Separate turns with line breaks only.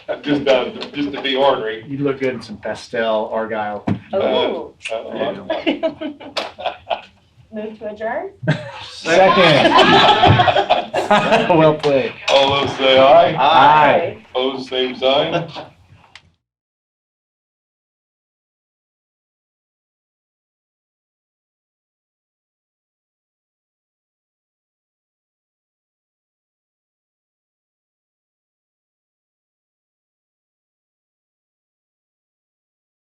Just, uh, just to be ornery.
You look good in some pastel argyle.
Oh.
Uh,
Move to adjourn?
Second. Well played.
All those say aye,
Aye.
opposed, same sign.